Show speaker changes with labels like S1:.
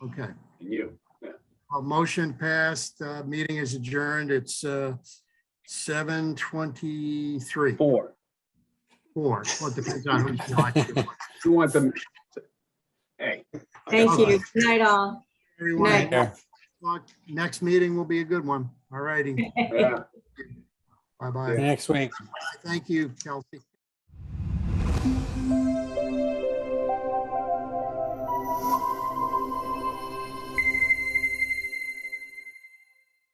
S1: Okay,
S2: and you.
S1: a motion passed, uh, meeting is adjourned. It's, uh, seven twenty-three,
S2: Four.
S1: four. Well, it depends on who's watching.
S2: You want them? Hey.
S3: Thank you.
S1: Okay.
S3: Good night, all.
S1: Everyone,
S3: Night.
S4: Yeah.
S1: look, next meeting will be a good one. All righty,
S2: Yeah.
S1: bye-bye.
S4: Next week.
S1: Thank you, Kelsey.